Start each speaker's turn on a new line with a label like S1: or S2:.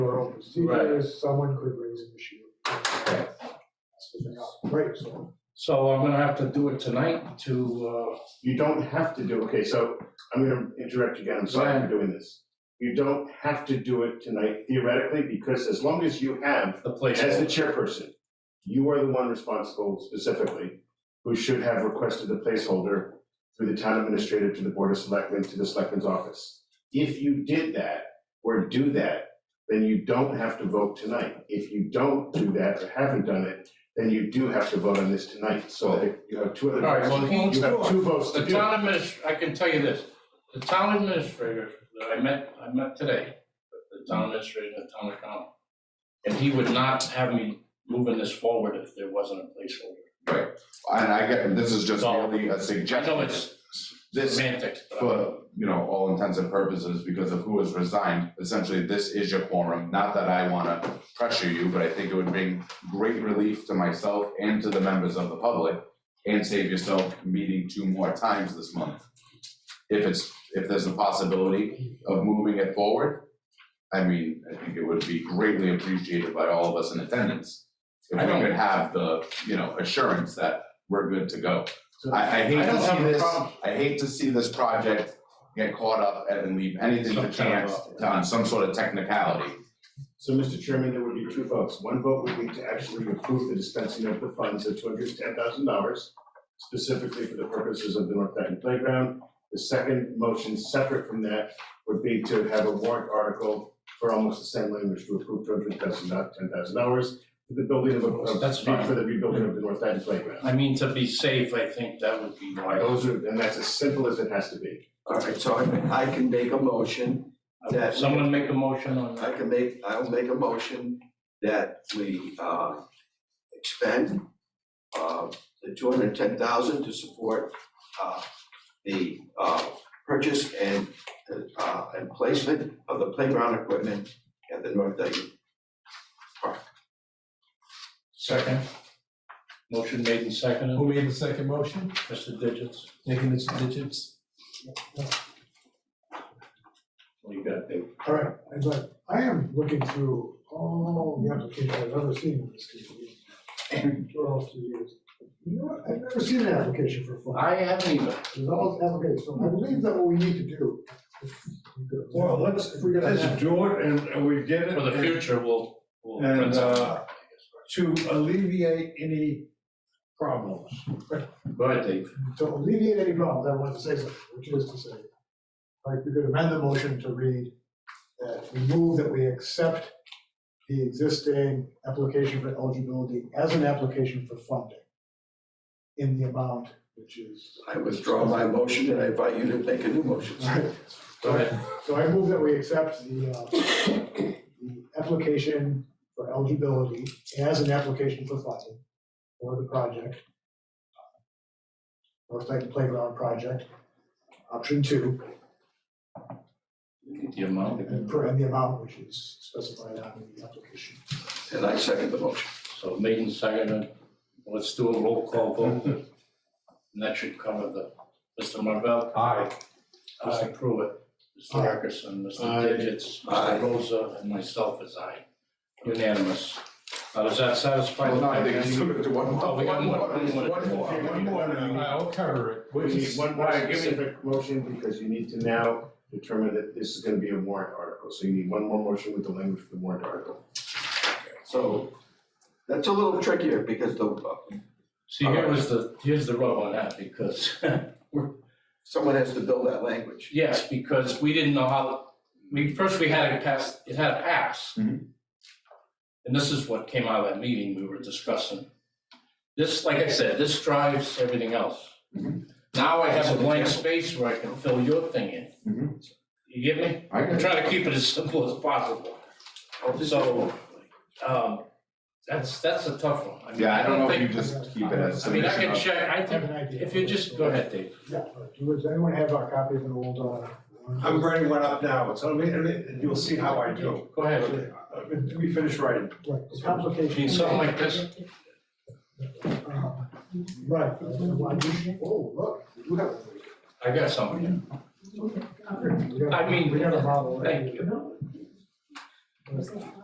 S1: our own procedure
S2: Right.
S1: is someone could raise an issue. That's the thing, Right, so,
S2: So I'm gonna have to do it tonight to, uh,
S3: You don't have to do, okay, so I'm gonna interrupt you again, I'm sorry for doing this. You don't have to do it tonight theoretically, because as long as you have,
S2: uh, the place.
S3: as the chairperson, you are the one responsible specifically, who should have requested the placeholder through the town administrator to the board of selectmen, to the selectmen's office. If you did that, or do that, then you don't have to vote tonight. If you don't do that, or haven't done it, then you do have to vote on this tonight, so you have two other.
S2: All right, well, he-
S3: You have two votes to
S2: The
S3: do.
S2: town administr, I can tell you this, the town administrator that I met, I met today, the town administrator, and the town accountant. And he would not have me moving this forward if there wasn't a placeholder.
S4: And I get, this is just
S2: So-
S4: merely a
S2: I know
S4: suggestion,
S2: it's
S4: this,
S2: semantics, but.
S4: for, you know, all intents and purposes, because of who has resigned, essentially, this is your quorum. Not that I wanna pressure you, but I think it would bring great relief to myself and to the members of the public, and save yourself meeting two more times this month. If it's, if there's a possibility of moving it forward, I mean, I think it would be greatly appreciated by all of us in attendance. If
S2: I
S4: we
S2: don't-
S4: could have the, you know, assurance that we're good to go.
S3: So-
S4: I, I
S3: I
S4: hate
S3: don't
S4: to
S3: have
S4: see
S3: a
S4: this,
S3: problem.
S4: I hate to see this project get caught up and then leave anything
S2: Some
S4: to
S2: kind of
S4: chance on some sort of technicality.
S3: So, Mr. Chairman, there would be two votes. One vote would be to actually approve the dispensing of the funds of two hundred and ten thousand dollars specifically for the purposes of the North Dayton Playground. The second motion, separate from that, would be to have a warrant article for almost the same language to approve two hundred thousand, not ten thousand dollars for the building of, of-
S2: That's fine.
S3: for the rebuilding of the North Dayton Playground.
S2: I mean, to be safe, I think that would be wise.
S3: Those are, and that's as simple as it has to be.
S5: All right, so I, I can make a motion, That-
S2: Someone make a motion on
S5: I
S2: that.
S5: can make, I'll make a motion that we, uh, expend, uh, the two hundred and ten thousand to support, uh, the, uh, purchase and, uh, and placement of the playground equipment at the North Dayton.
S2: Second. Motion made and seconded,
S6: Who made the second motion?
S2: Mr. Digits.
S6: Nick and Mr. Digits?
S2: What do you got, Dave?
S1: all right, and but I am looking through all the applications I've ever seen in this community. For almost two years. You know, what? I've never seen an application for a fund.
S2: I haven't even,
S1: There's all these applications, so I believe that what we need to do. if we could-
S7: Well, let's,
S1: If we could-
S7: let's do it and and we get it.
S2: for the
S7: and
S2: future, we'll, we'll.
S7: And,
S2: print something
S7: uh,
S2: out, I guess.
S7: To alleviate any problems.
S2: Go ahead, Dave.
S1: to alleviate any problems, I want to say something, which is to say, like, we could amend the motion to read that we move that we accept the existing application for eligibility as an application for funding in the amount which is.
S5: I withdraw my motion and I invite you to make a new motion.
S2: Go ahead.
S1: So I move that we accept the, uh, the application for eligibility as an application for funding for the project. Uh, North Dayton Playground Project, option two.
S2: The amount,
S1: And for, and the amount which is specified on the application.
S5: And I second the motion.
S2: so made and seconded, let's do a roll call vote. And that should cover the, Mr. Marvell,
S6: Aye.
S2: Mr. Pruitt, Mr.
S1: Aye.
S2: Ferguson, Mr.
S7: Aye.
S2: Digits,
S5: Aye.
S2: Mr. Rosa, and myself is aye. Unanimous. Now, does that satisfy? the-
S4: Well, no, I think it's one
S2: Oh, we got more, one more.
S4: One more.
S3: Okay, one more now.
S6: I'll cover it.
S3: We
S6: We'll
S3: need
S6: just-
S3: one more
S2: all right, give me-
S3: specific motion because you need to now determine that this is gonna be a warrant article. So you need one more motion with the language for the warrant article.
S5: So that's a little trickier because the,
S2: See, here was the, here's the rub on that, because,
S5: someone has to build that language.
S2: yes, because we didn't know how, we, first we had it pass, it had a pass.
S4: Mhm.
S2: And this is what came out of that meeting we were discussing. This, like I said, this drives everything else.
S4: Mhm.
S2: Now I have a blank space where I can fill your thing in.
S4: Mhm.
S2: You get me?
S4: I
S2: I'm
S4: get it.
S2: trying to keep it as simple as possible. So, um, that's, that's a tough one. mean,
S4: Yeah, I don't know if you
S2: think-
S4: just keep it as
S1: just-
S2: I mean, I
S4: submission
S2: can
S4: of-
S2: check, I
S1: I have
S2: think,
S1: an idea.
S2: if you just, go ahead, Dave.
S1: Yeah, uh, does anyone have our copy of an old, uh?
S7: I'm writing one up now, so let me, let me- you'll see how I do.
S2: Go ahead.
S7: Uh, Let me finish writing.
S1: Right, the
S2: I mean,
S1: complication.
S2: something like this,
S1: Uh, Right, uh, why you- oh, look, we do have.
S2: I got something.
S1: we got-
S2: I mean,
S1: We got a model.
S2: Thank you.